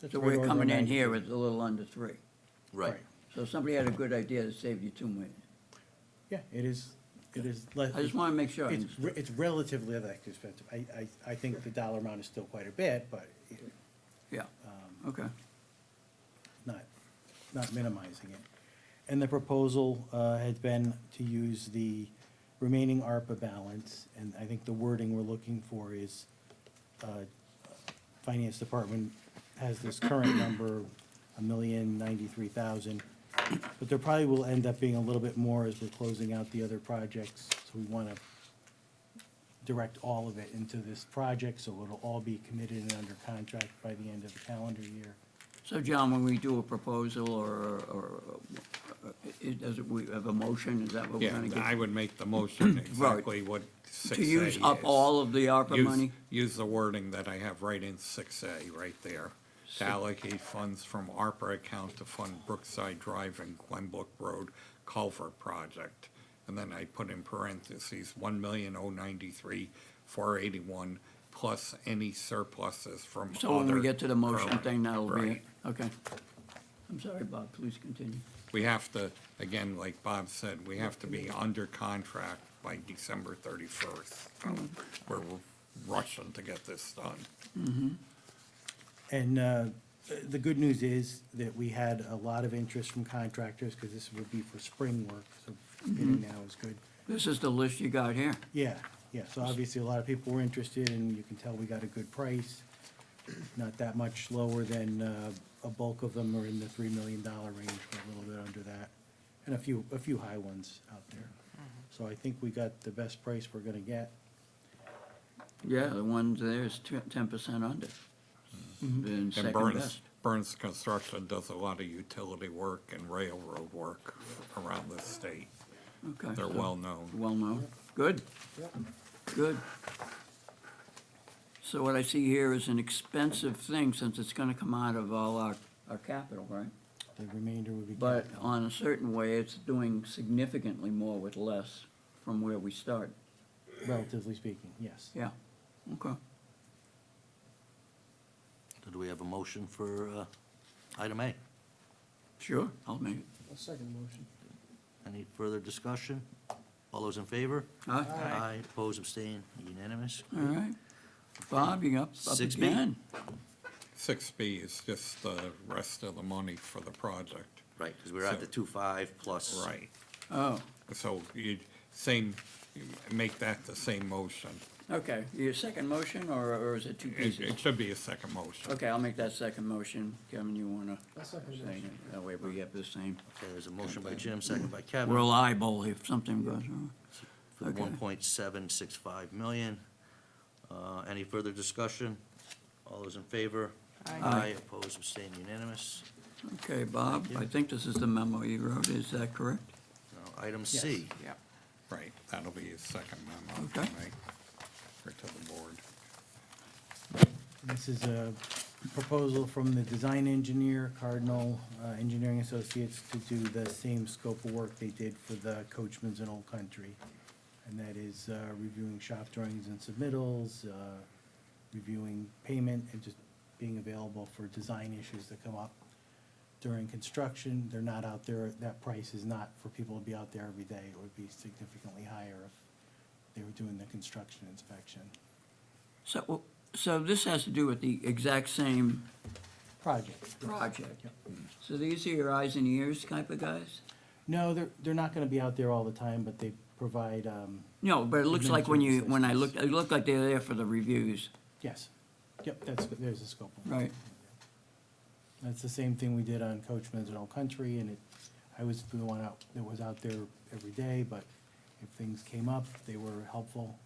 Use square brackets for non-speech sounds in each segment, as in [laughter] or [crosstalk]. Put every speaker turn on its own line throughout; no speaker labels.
That's
So
right,
we're
order of
coming in
magnitude.
here with a little under three.
Right.
Right.
So somebody had a good idea that saved you two million.
Yeah, it is, it is. less-
I just wanna make sure I
It's,
understood.
re- it's relatively less expensive. I, I, I think the dollar amount is still quite a bit, but it-
Yeah, okay.
not, not minimizing it. And the proposal uh, had been to use the remaining ARPA balance, and I think the wording we're looking for is, uh, Finance Department has this current number, a million ninety-three thousand, but there probably will end up being a little bit more as we're closing out the other projects, so we want to direct all of it into this project, so it'll all be committed and under contract by the end of the calendar year.
So John, when we do a proposal or, or, uh, it, does it, we have a motion, is that what we're
Yeah,
gonna
I
get?
would make
[clears throat]
the motion exactly what six A
To
is.
use up all of the ARPA
Use-
money?
Use the wording that I have right in six A, right there. To allocate funds from ARPA account to fund Brookside Drive and Glenbrook Road Culver Project. And then I put in parentheses, one million oh ninety-three, four eighty-one, plus any surpluses from
So when we
other
get to the motion
current-
thing, that'll be it,
Right.
okay. I'm sorry, Bob, please continue.
We have to, again, like Bob said, we have to be under contract by December thirty-first. We're rushing to get this done.
And uh, the good news is that we had a lot of interest from contractors, because this would be for spring work, so bidding now is good.
This is the list you got here.
Yeah, yeah, so obviously a lot of people were interested, and you can tell we got a good price, not that much lower than, uh, a bulk of them are in the three million dollar range, or a little bit under that, and a few, a few high ones out there. So I think we got the best price we're gonna get.
Yeah, the ones there is ten percent under. And
Mm-hmm. And
second
Burns,
best.
Burns Construction does a lot of utility work and railroad work around the state.
Okay.
They're
so-
well-known.
Well known. Good. Good. So what I see here is an expensive thing since it's gonna come out of all our, our capital, right?
The remainder would be.
But on a certain way, it's doing significantly more with less from where we started.
Relatively speaking, yes.
Yeah, okay.
So do we have a motion for uh, item A?
Sure, I'll make it.
I'll second the motion.
Any further discussion? All those in favor?
Huh?
Aye. Oppose, abstain, unanimous?
All right. Bob, you up, up
6B.
again?
Six B is just the rest of the money for the project.
Right, because we're at the two-five plus.
Right.
Oh,
So you, same, make that the same motion.
okay. Your second motion, or, or is it two
It,
pieces?
it should be a second motion.
Okay, I'll make that second motion. Kevin, you wanna?
I'll second the
say
motion.
it? That way we have the same.
Okay, there's a motion by Jim, second by Kevin.
We'll eyeball if something goes wrong.
for
Okay.
one point seven six five million. Uh, any further discussion? All those in favor? Aye. Oppose, abstain, unanimous.
Okay, Bob, I think this is the memo you wrote, is that correct?
Now, item C.
Yeah.
Right, that'll be his second memo
Okay.
tonight, or to the board.
This is a proposal from the design engineer, Cardinal uh, Engineering Associates, to do the same scope of work they did for the Coachman's in Old Country. And that is uh, reviewing shop drawings and submittals, uh, reviewing payment, and just being available for design issues that come up during construction. They're not out there, that price is not for people to be out there every day. It would be significantly higher if they were doing the construction inspection
So, so this has to do with the exact same
project.
project? So these are your eyes and ears type of guys?
No, they're, they're not gonna be out there all the time, but they provide, um,
No, but it looks like when you, when I looked, it looked like they're there for the reviews,
yes. Yep, that's, there's a scope. of it.
right?
That's the same thing we did on Coachman's in Old Country, and it, I was the one out, that was out there every day, but if things came up, they were helpful.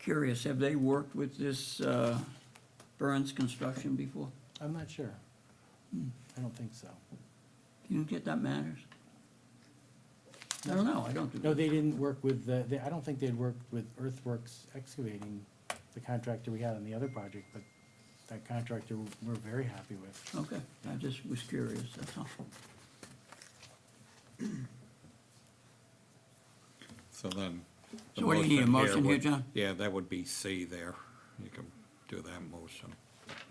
Curious, have they worked with this, uh, Burns Construction before?
I'm not sure. I don't think so.
Do you get that matters? I don't know, I don't do
No, they didn't work with the, they, I don't think they'd worked with Earthworks Excavating, the contractor we had on the other project, but that contractor we're very happy with.
Okay, I just was curious, that's all.
So then. the
So what do you need, a motion here,
would-
John?
Yeah, that would be C there. You can do that motion.